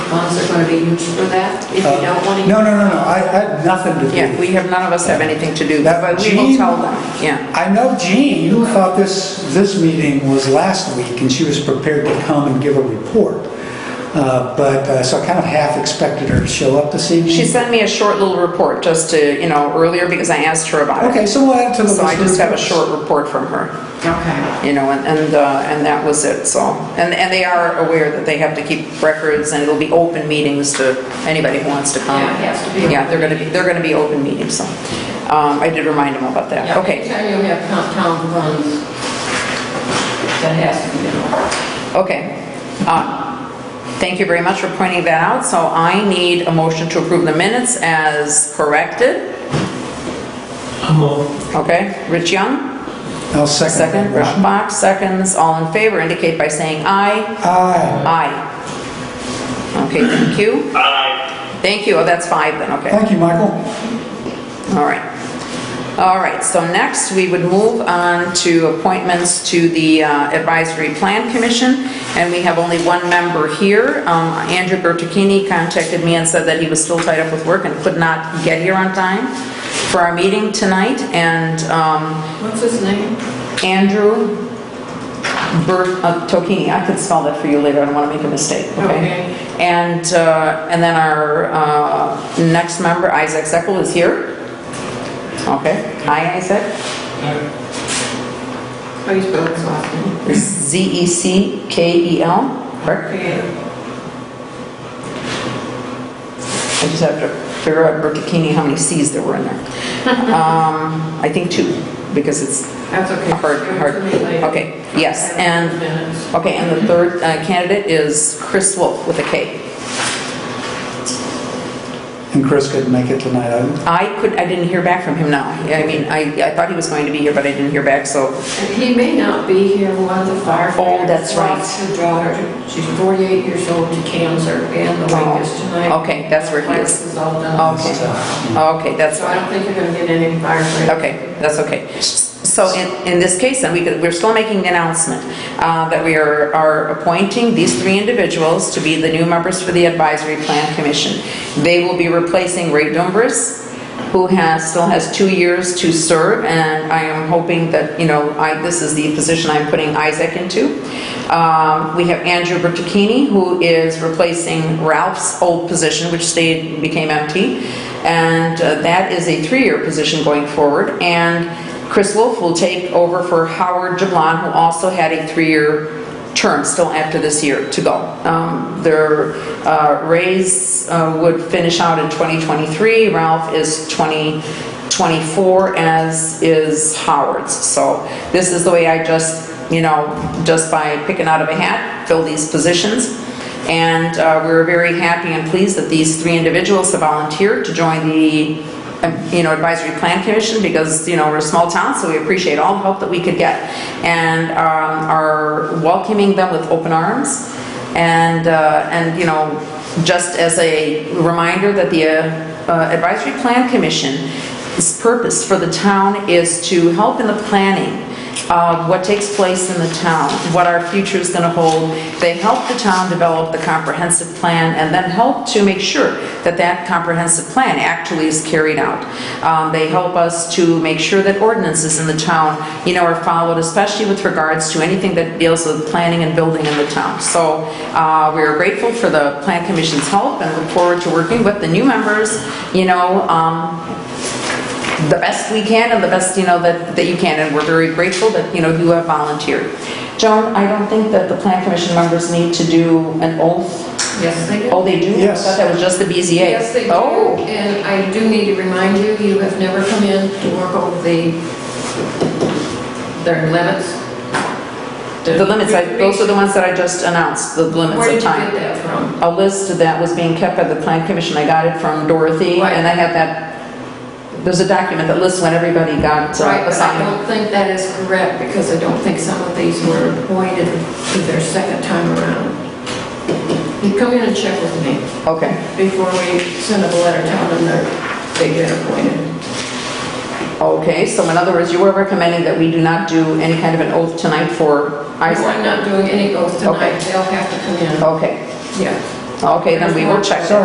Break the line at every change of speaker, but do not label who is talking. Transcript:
ones are going to be used for that, if you
Uh,
don't want to.
No, no, no, no, I I had nothing to do
Yeah,
with it.
we have, none of us have anything to do, with it,
That
but we will
Jean-
tell them, yeah.
I know Jean thought this, this meeting was last week, and she was prepared to come and give a report. Uh, But, uh, so I kind of half expected her to show up this evening.
She sent me a short little report just to, you know, earlier because I asked her about it.
Okay, so we'll add it to the list.
So I
of
just have a
reports.
short report from her,
Okay.
you know, and, and, uh, and that was it, so. And, and they are aware that they have to keep records and it'll be open meetings to anybody who wants to come.
Yeah, it has to be
Yeah, they're gonna be, they're gonna be open meetings, so. Um, I did remind them about that,
Yeah,
okay,
Anytime you have town- town funds, that has to be done.
okay. Uh, Thank you very much for pointing that out, so I need a motion to approve the minutes as corrected, okay? Rich Young,
I'll second that
second, Ralph
motion.
Box, seconds, all in favor, indicate by saying aye.
Aye.
Aye. Okay, thank you. Aye. Thank you, oh, that's five then, okay,
Thank you, Michael.
all right. All right, so next, we would move on to appointments to the uh, Advisory Plan Commission, and we have only one member here. Um, Andrew Bertocchini contacted me and said that he was still tied up with work and could not get here on time for our meeting tonight, and um,
What's his name?
Andrew Bertocchini, I could spell that for you later, I don't want to make a mistake, okay?
Okay.
And, uh, and then our uh, next member, Isaac Zekel, is here. Okay, hi Isaac,
How do you spell his last name?
It's E Z-E-C-K-E-L, E correct?
Okay.
I just have to figure out Bertocchini, how many Cs there were in there. Um, I think two, because it's
That's okay.
hard, hard,
Give it to me later.
okay, yes,
I have
and,
minutes.
okay, and the third uh, candidate is Chris Wolf with a K.
And Chris couldn't make it tonight, I-
I could, I didn't hear back from him now. I mean, I, I thought he was going to be here, but I didn't hear back, so,
And He may not be here, one of the firefighters.
Oh, that's right.
lost Her daughter, she's 48 years old, to cancer, and the wake is tonight.
Oh, okay, that's where he
This
is.
is all done.
Okay, okay, that's,
So I don't think you're gonna get any firefighters.
okay, that's okay. So in, in this case, then, we could, we're still making the announcement uh, that we are, are appointing these three individuals to be the new members for the Advisory Plan Commission. They will be replacing Ray Dumbrus, who has, still has two years to serve, and I am hoping that, you know, I, this is the position I'm putting Isaac into. Um, We have Andrew Bertocchini, who is replacing Ralph's old position, which stayed, became empty, and uh, that is a three-year position going forward, and Chris Wolf will take over for Howard Jablon, who also had a three-year term still after this year to go. Um, Their uh, raise uh, would finish out in 2023, Ralph is 2024, as is Howard's. So this is the way I just, you know, just by picking out of a hat, fill these positions. And uh, we're very happy and pleased that these three individuals have volunteered to join the, um, you know, Advisory Plan Commission because, you know, we're a small town, so we appreciate all the help that we could get. And um, are welcoming them with open arms. And, uh, and, you know, just as a reminder that the uh, uh, Advisory Plan Commission's purpose for the town is to help in the planning of what takes place in the town, what our future is going to hold. They help the town develop the comprehensive plan and then help to make sure that that comprehensive plan actually is carried out. Um, They help us to make sure that ordinances in the town, you know, are followed, especially with regards to anything that deals with planning and building in the town. So uh, we are grateful for the Plan Commission's help and look forward to working with the new members, you know, um, the best we can and the best, you know, that, that you can, and we're very grateful that, you know, you have volunteered. Joan, I don't think that the plan commission members need to do an oath.
Yes, they do.
Oh, they do?
Yes.
I thought that was just the BZA.
Yes, they do.
Oh,
And I do need to remind you, you have never come in to work over the, their limits.
the limits, I- those are the ones that I just announced, the limits
Where did
of
you get
time.
that from?
A list that was being kept by the plan commission, I got it from Dorothy,
Right.
and I have that, there's a document that lists when everybody got
Right, but I
uh, assigned.
don't think that is correct, because I don't think some of these were appointed to their second time around. You come in and check with me
Okay,
before we send up a letter telling them that they get appointed.
okay, so in other words, you were recommending that we do not do any kind of an oath tonight for
I'm
Isaac?
not doing any oath tonight,
Okay. Oh.
they'll have to come in.
Okay,
Yeah,
Okay, then we will check.
Sorry,